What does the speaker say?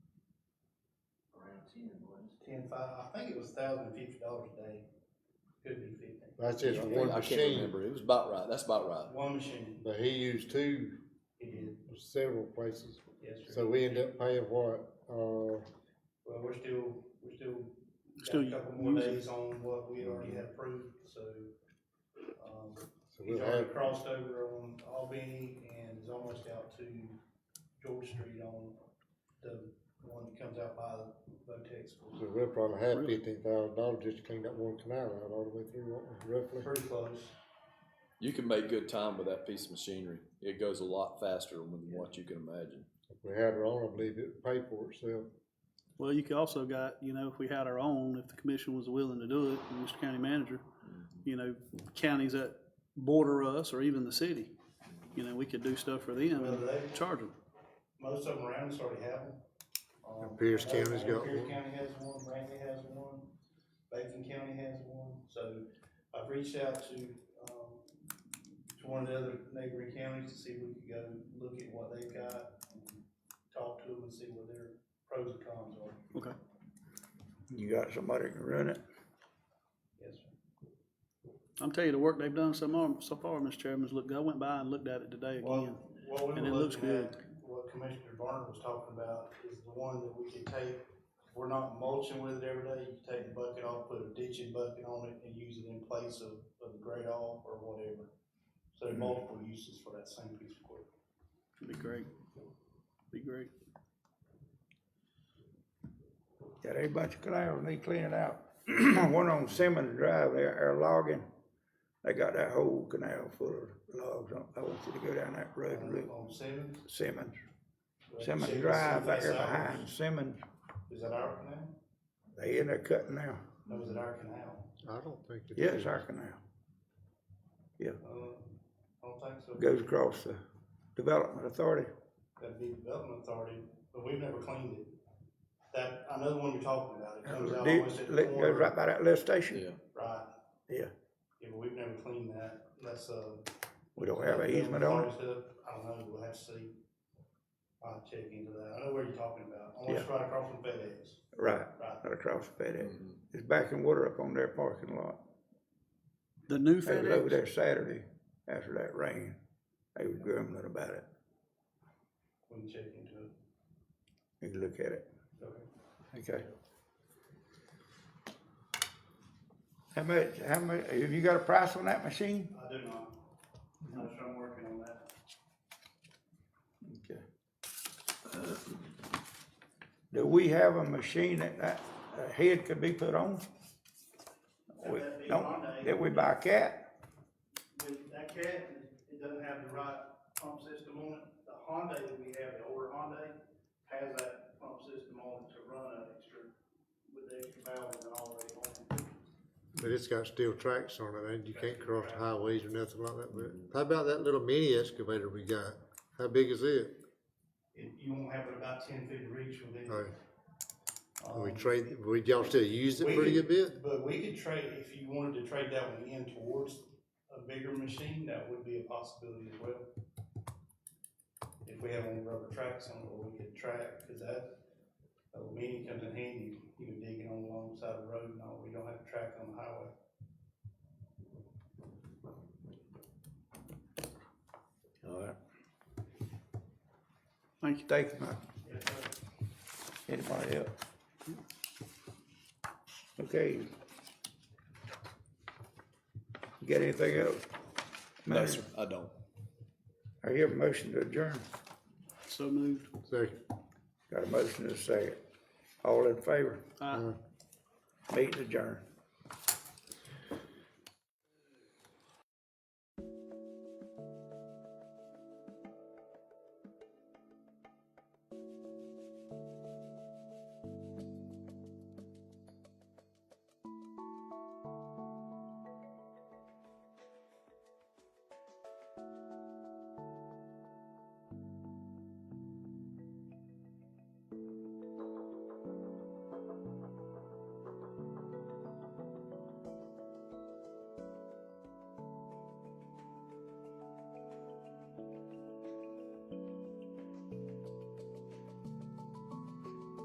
ten was. ten five, I think it was thousand fifty dollars a day, could be fifty. That's just I one can't- I can't machine, remember. It was about right. That's about right. One machine, but he used two, it is, several places, yes, sir. so we end up paying what, uh, Well, we're still, we're still, Still got a couple more using. days on what we already had approved, so. um, so He's we'll already have, crossed over on Albany and is almost out to George Street on the one that comes out by Votex. so we'll probably have Really? fifteen thousand dollars just to clean that one canal out all the way through, won't we, roughly. Pretty close. You can make good time with that piece of machinery. It goes a lot faster than what you can imagine. If we had our own, I believe it would pay for itself. Well, you could also got, you know, if we had our own, if the commission was willing to do it, and Mr. County Manager, you know, counties that border us or even the city, you know, we could do stuff for them Well, and they, charge them. most of them around us already have them. Um, I Pierce know- I County's know got Pierce one. County has one, Brantley has one, Bacon County has one, so I've reached out to, um, to one of the other neighboring counties to see if we could go look at what they've got, talk to them and see what their pros and cons are. Okay. You got somebody that can run it? Yes, sir. I'm telling you, the work they've done so far, so far, Mr. Chairman's looked, I went by and looked at it today again. Well, what we And it were looks looking at, what Commissioner Barnard was talking about is the one that we could take, if we're not mulching with it every day, you take the bucket off, put a ditching bucket on it and use it in place of, of the grade off or whatever. So Mm-hmm. there are multiple uses for that same piece of equipment. It'd Be great. Be great. Got a bunch of clouds, they clean it out. One on Simmons Drive, there, are logging, they got that whole canal full of logs on, I want you to go down that road and look, On Simmons. Simmons, right, Simmons Drive, back there that's ours. behind Simmons, Is that our canal? they in there cutting now, No, is it our canal? I don't think it yeah, is. it's our canal. Uh, I don't think so. Goes across the Development Authority, That'd be Development Authority, but we've never cleaned it. That, I know the one you're talking about. Oh, It comes out almost at the It goes corner. right by that lift station, Yeah. Right. Yeah. Yeah, but we've never cleaned that, that's, uh. we don't have an easement on it, I don't know, we'll have to see, I'll check into that, I know where you're talking about, almost right across from FedEx, right, right, not across FedEx, Mhm. it's backing water up on their parking lot. The new They was over FedEx, there Saturday after that rain. They was grumbling about it. we can check into it. You can look at it. Okay. Okay. How much, how much, have you got a price on that machine? I do not, I'm sure I'm working on that. Okay. Do we have a machine that that, a head could be put on? We, That'd be don't, Monday. that we buy a cat? With that cat, it doesn't have the right pump system on it, the Honda that we have, the older Honda, has that pump system on it to run an extra, with the extra valve and all the way on. But it's got steel tracks on it, and you can't cross the highways or nothing like that, but how about that little mini excavator we got? How big is it? It, you won't have it about ten feet of reach with it. All right, Um, we trade, we, y'all still use We it pretty could- good bit? But we could trade, if you wanted to trade that one in towards a bigger machine, that would be a possibility as well. If we have any rubber tracks on it, or we could track, cause that, a mini comes in handy, you can dig it on the long side of the road and all, we don't have to track on the highway. All right. thank you. Thank you, Mike. Anybody else? Okay. You got anything else? No, sir. I don't. I hear a motion to adjourn. So moved. Second. Got a motion to second. All in favor? Aye. Meeting adjourned.